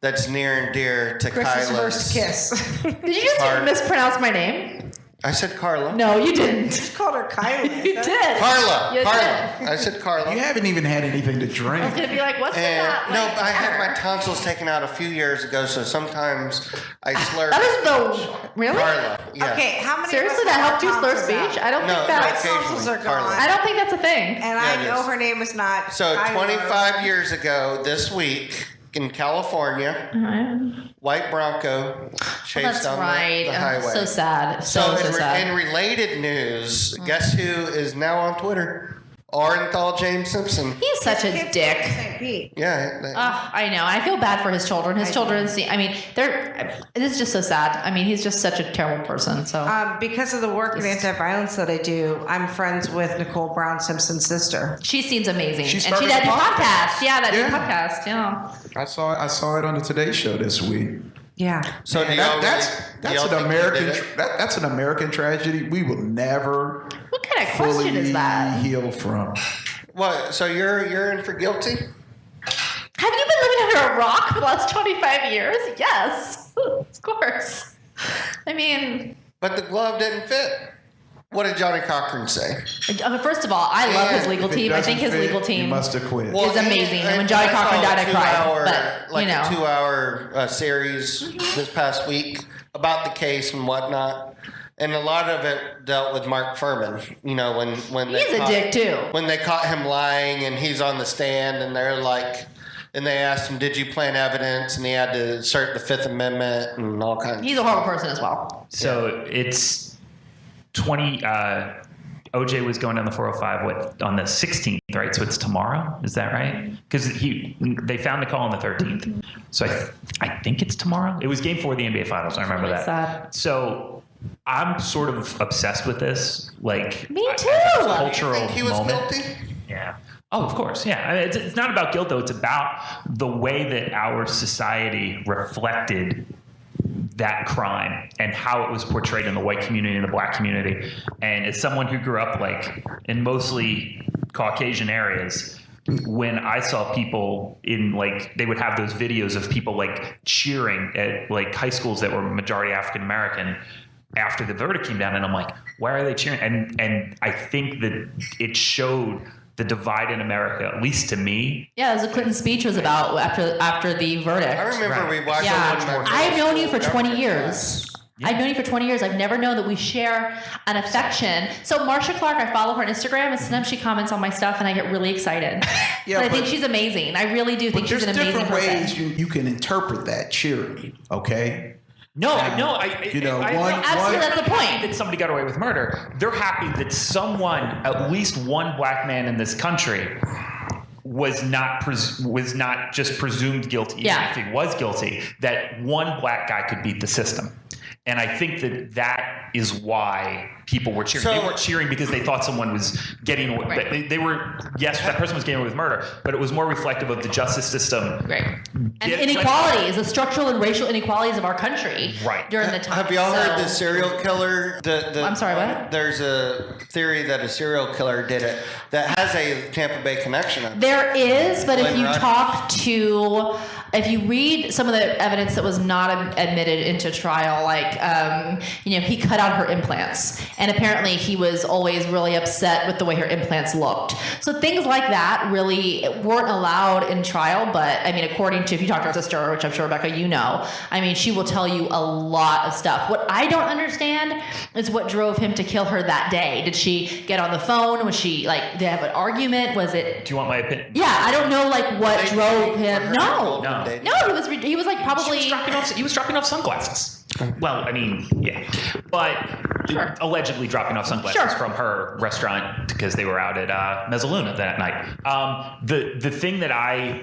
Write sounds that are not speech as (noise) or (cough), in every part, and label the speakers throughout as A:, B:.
A: that's near and dear to
B: Chris's
A: Kyla's.
B: first kiss. (laughs)
C: Did you just
A: Car-
C: mispronounce my name?
A: I said Carla.
C: No, you didn't.
B: Just called her Kyla.
C: You did.
A: Carla.
C: You
A: Carla.
C: did.
A: I said Carla.
D: You haven't even had anything to drink.
C: I
D: (laughs)
C: was gonna be like, what's in
A: And
C: that?
A: Eh, no,
C: like,
A: I had my
C: pepper?
A: tonsils taken out a few years ago, so sometimes I slur.
C: That is the really.
A: Carla. Yeah.
B: Okay, how many? of
C: Seriously,
B: us
C: that
B: have
C: helped you slur
B: tonsils out?
C: speech? I don't
A: No,
C: think
A: no,
C: that's.
A: occasionally.
B: tonsils are
A: Carla.
B: gone.
C: I don't think that's a thing.
B: And
A: Yeah,
B: I
A: it
B: know
A: is.
B: her name is not.
A: So
B: Kyla.
A: 25 years ago, this week in California, white Bronco chased
C: Oh, That's
A: down the-
C: right.
A: the,
C: I'm
A: highway.
C: so sad.
A: So,
C: So so,
A: in, re-
C: sad. Mm.
A: in related news, guess who is now on Twitter? Orenthal James Simpson.
C: He's such a
B: Kids
C: dick.
B: go to St. Pete.
A: Yeah, that-
C: Ugh, I know. I feel bad for his children. His children see. I mean, they're. This is just so sad. I mean, he's just such a terrible person. So
B: Um, because of the work in anti-violence that I do, I'm friends with Nicole Brown Simpson's sister.
C: she seems amazing,
D: She
C: and she
D: started
C: did
D: a
C: podcast.
D: podcast.
C: Yeah, that
D: Yeah.
C: podcast. Yeah.
D: I saw I saw it on the Today Show this week.
B: Yeah.
A: so do
D: And
A: y'all really-
D: that- that's
A: do
D: that's
A: y'all think
D: an
A: he
D: American
A: did it?
D: tra- that, that's an American tragedy. We will never
C: What kind of
D: fully
C: question is that?
D: heal from.
A: What? So you're you're in for guilty?
C: Have you been living under a rock for the last twenty five years? Yes, (laughs) of course. I mean,
A: But the glove didn't fit. What did Johnny Cochran say?
C: uh, first of all, I love his
A: And
C: legal
D: If it
C: team. I
D: doesn't
C: think his
D: fit,
C: legal
D: You
C: team.
D: must have quit.
C: Well- It's amazing. And when Johnny
A: I saw
C: Cochran
A: a
C: died, I cried.
A: two-hour-
C: But, you
A: like
C: know.
A: a two-hour uh, series this past week about the case and whatnot, and a lot of it dealt with Mark Furman. You know, when when they
C: He's a
A: caught,
C: dick, too.
A: When they caught him lying, and he's on the stand, and they're like. And they asked him, "Did you plant evidence?" And he had to assert the Fifth Amendment and all kinds.
C: He's a horrible person as well.
E: So it's 20. Uh, OJ was going down the 405 with, on the 16th, right? So it's tomorrow. Is that right? Because he they found the call on the 13th. So I, I think it's tomorrow. It was game four of the NBA Finals. I remember
C: That's
E: that.
C: sad.
E: So I'm sort of obsessed with this. Like
C: Me
E: I- I think
C: too.
E: it's a
C: You
A: Do you
E: cultural
A: think he was
E: moment.
A: guilty?
E: Yeah. Oh, of course. Yeah. I mean, it's, it's not about guilt, though. It's about the way that our society reflected that crime and how it was portrayed in the white community and the black community. And as someone who grew up like in mostly Caucasian areas, when I saw people in like they would have those videos of people like cheering at like high schools that were majority African American after the verdict came down and I'm like, why are they cheering? And and I think that it showed the divide in America, at least to me,
C: Yeah, as the Clinton speech was about after after the verdict.
A: I remember
E: Right.
A: we watched.
C: Yeah,
A: it in my
C: I've known you for
A: first
C: 20
A: government
C: years. I've known you for 20 years. I've never known that we share an affection. So Marsha Clark, I follow her on Instagram, and sometimes she comments on my stuff, and I get really excited.
D: Yeah,
C: but I think
D: but-
C: she's amazing. I really do think she's
D: There's
C: an amazing
D: different ways
C: person.
D: you, you can interpret that cheering. Okay,
E: No,
D: Um,
E: no, I.
D: you know,
E: I, I-
D: one-
E: I'm
C: Absolutely,
D: Why-
C: that's the
E: happy
C: point.
E: that somebody got away with murder. They're happy that someone, at least one black man in this country, was not pres- was not just presumed guilty, even
C: Yeah.
E: if he was guilty. That one black guy could beat the system, and I think that that is why people were cheering.
A: So-
E: they weren't cheering because they thought someone was getting away.
C: Right.
E: They, they were yes, that person was getting away with murder, but it was more reflective of the justice system.
C: Right. And
E: Yeah,
C: inequalities, the structural and racial inequalities of our country
E: Right.
C: during the time.
A: Have y'all heard
C: So-
A: the serial killer? The, the,
C: I'm sorry, what?
A: There's a theory that a serial killer did it that has a Tampa Bay connection. on it.
C: There is, but if
A: Glenn
C: you
A: Rod-
C: talk to, if you read some of the evidence that was not ad- admitted into trial, like, um, you know, he cut out her implants. And apparently he was always really upset with the way her implants looked. So things like that really weren't allowed in trial. But I mean, according to, if you talk to her sister, which I'm sure, Rebecca, you know, I mean, she will tell you a lot of stuff. What I don't understand is what drove him to kill her that day. Did she get on the phone? Was she like, did they have an argument? Was it
E: Do you want my opinion?
C: yeah, I don't know like what
A: They-
C: drove
A: they
C: him.
A: were hurt.
C: No,
E: No.
A: They-
C: no, he was re- he was like probably.
E: He was dropping off. He was dropping off sunglasses. Well, I mean, yeah, but
C: Sure.
E: allegedly dropping off sunglasses
C: Sure.
E: from her restaurant because they were out at uh, Mezzaluna that night. Um, the the thing that I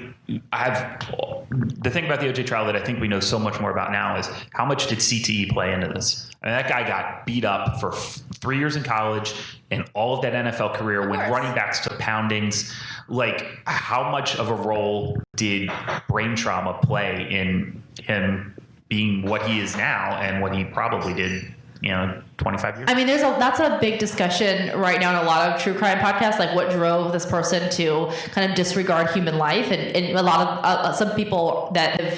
E: have, the thing about the OJ trial that I think we know so much more about now is how much did CTE play into this? I mean, that guy got beat up for f- three years in college and all of that NFL career when
C: course.
E: running backs to poundings. Like, how much of a role did brain trauma play in him being what he is now and what he probably did, you know, 25 years
C: I mean, there's a that's a big discussion right now in a lot of true crime podcasts, like what drove this person to kind of disregard human life, and, and a lot of uh, uh, some people that have